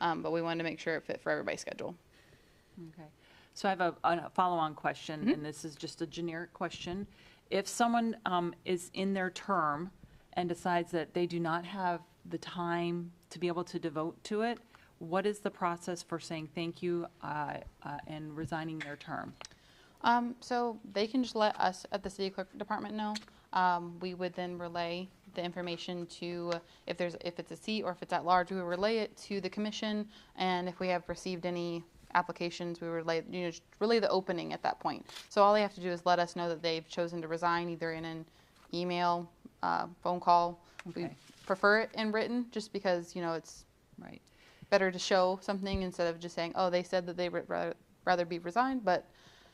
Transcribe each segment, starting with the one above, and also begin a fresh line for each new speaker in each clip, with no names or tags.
Um, but we wanted to make sure it fit for everybody's schedule.
Okay. So I have a, a follow-on question,
Mm-hmm.
and this is just a generic question. If someone um, is in their term and decides that they do not have the time to be able to devote to it, what is the process for saying thank you uh, uh, and resigning their term?
Um, so they can just let us at the city clerk department know. Um, we would then relay the information to, if there's, if it's a seat or if it's at large, we would relay it to the commission. And if we have received any applications, we relay, you know, just relay the opening at that point. So all they have to do is let us know that they've chosen to resign either in an email, uh, phone call. We
Okay.
prefer it in written, just because, you know, it's
Right.
better to show something instead of just saying, oh, they said that they would rather, rather be resigned, but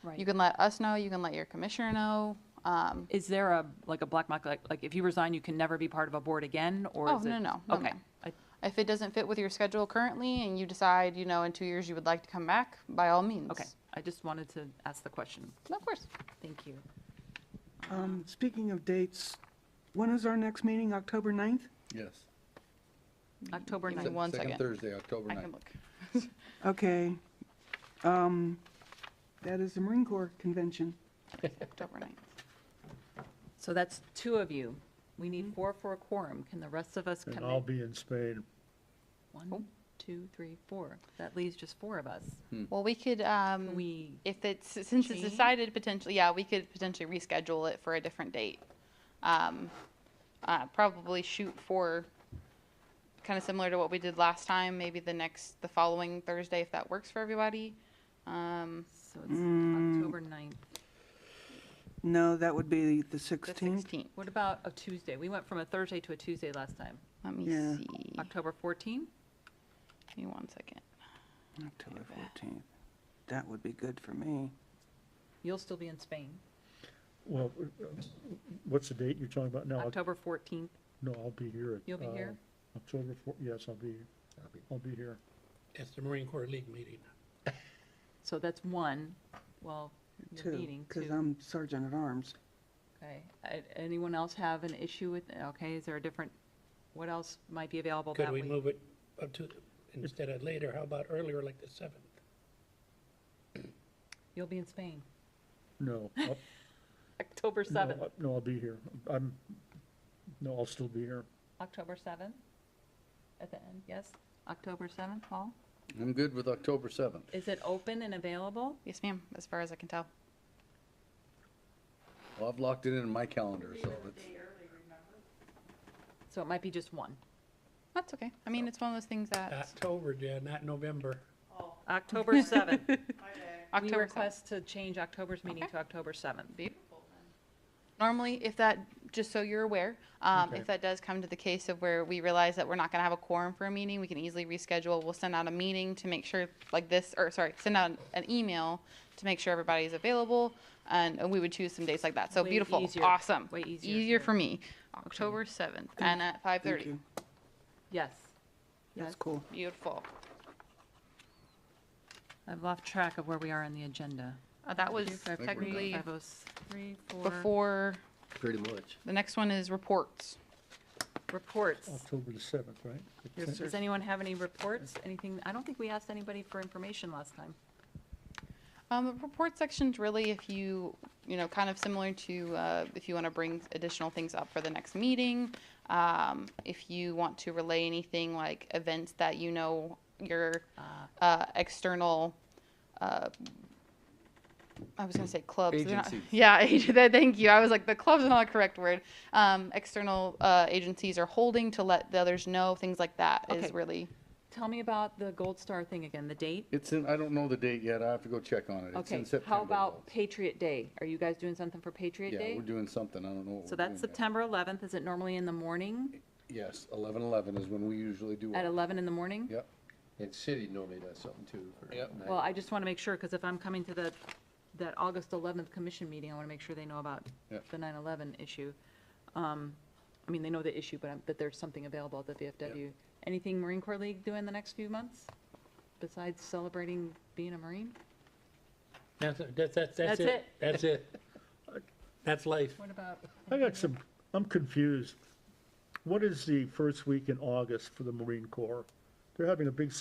Right.
you can let us know, you can let your commissioner know. Um,
Is there a, like a black mark, like, like if you resign, you can never be part of a board again, or
Oh,
is it?
no, no, no,
Okay.
no.
I-
if it doesn't fit with your schedule currently and you decide, you know, in two years you would like to come back, by all means.
Okay. I just wanted to ask the question.
Of course.
Thank you.
Um, Speaking of dates, when is our next meeting? October 9th?
Yes.
October
Give me
9th.
one
Second
second.
Thursday, October
I can
9th.
look.
Okay. Um, That is the Marine Corps Convention.
October 9th.
So that's two of you. We need four for a quorum. Can the rest of us
And
commit?
Oh.
I'll be in Spain.
One, two, three, four. That leaves just four of us.
Well, we could, um,
We,
if it's, since it's
Change?
decided potentially, yeah, we could potentially reschedule it for a different date. Um, uh, probably shoot for kind of similar to what we did last time, maybe the next, the following Thursday, if that works for everybody. Um,
so it's October 9th.
No, that would be
the
the 16th.
16th.
What about a Tuesday? We went from a Thursday to a Tuesday last time.
Let me
Yeah.
see.
October 14th?
Give me one second.
October 14th. That would be good for me.
You'll still be in Spain.
Well, uh, what's the date you're talking about now?
October 14th.
No, I'll be here. at,
You'll be
uh,
here?
October four, yes, I'll be, I'll be here.
It's the Marine Corps League meeting.
So that's one. Well, you're meeting
Because
two.
I'm Sergeant at Arms.
Okay. A- Anyone else have an issue with, okay, is there a different, what else might be available
Could
that
we
week?
move it up to, instead of later, how about earlier, like the seventh?
You'll be in Spain.
No. I'll- no,
October 7th.
I- No, I'll be here. I'm, no, I'll still be here.
October 7th? At the end, yes? October 7th, Paul?
I'm good with October 7th.
Is it open and available?
Yes, ma'am, as far as I can tell.
Well, I've locked it in in my calendar, so it's,
So it might be just one.
That's okay. I mean, it's one of those things that
October, Jen, not November.
October 7th. We
October seventh.
request to change October's meeting to October 7th.
Normally, if that, just so you're aware, um,
Okay.
if that does come to the case of where we realize that we're not gonna have a quorum for a meeting, we can easily reschedule. We'll send out a meeting to make sure, like this, or sorry, send out an email to make sure everybody's available, and, and we would choose some dates like that. So
Way
beautiful,
easier.
awesome.
Way easier,
Easier
yeah.
for me. October seventh, and at five
Thank
thirty.
you.
Yes.
That's cool.
Beautiful.
I've lost track of where we are on the agenda.
Uh, that was
Five
we're
technically
Five oh s- three, four.
before,
pretty much.
the next one is reports.
Reports.
October the seventh, right?
Does anyone have any reports? Anything, I don't think we asked anybody for information last time.
Um, the report section's really if you, you know, kind of similar to, uh, if you want to bring additional things up for the next meeting. Um, if you want to relay anything like events that you know your, uh, external, uh, I was gonna say clubs. they're not-
Agencies.
Yeah, ag- that- thank you. I was like, the club's are not the correct word. Um, external, uh, agencies are holding to let the others know, things like that is
Okay.
really.
Tell me about the Gold Star thing again, the date?
It's in, I don't know the date yet. I have to go check on it. It's
Okay,
in September.
how about
though.
Patriot Day? Are you guys doing something for Patriot
Yeah,
Day?
we're doing something. I don't know what we're
So that's
doing yet.
September 11th. Is it normally in the morning,
Yes, 11/11 is when we usually do
at
it.
11 in the morning?
Yep.
And city normally does something too. for
Yep.
night.
Well, I just want to make sure, because if I'm coming to the, that August 11th commission meeting, I want to make sure they know about
Yeah.
the 9/11 issue. Um, I mean, they know the issue, but I'm- that there's something available at the VFW. Anything Marine Corps League doing the next few months, besides celebrating being a Marine?
That's, that's, that's,
That's
that's it.
it.
That's it. That's life.
What about?
I got some, I'm confused. What is the first week in August for the Marine Corps? They're having a big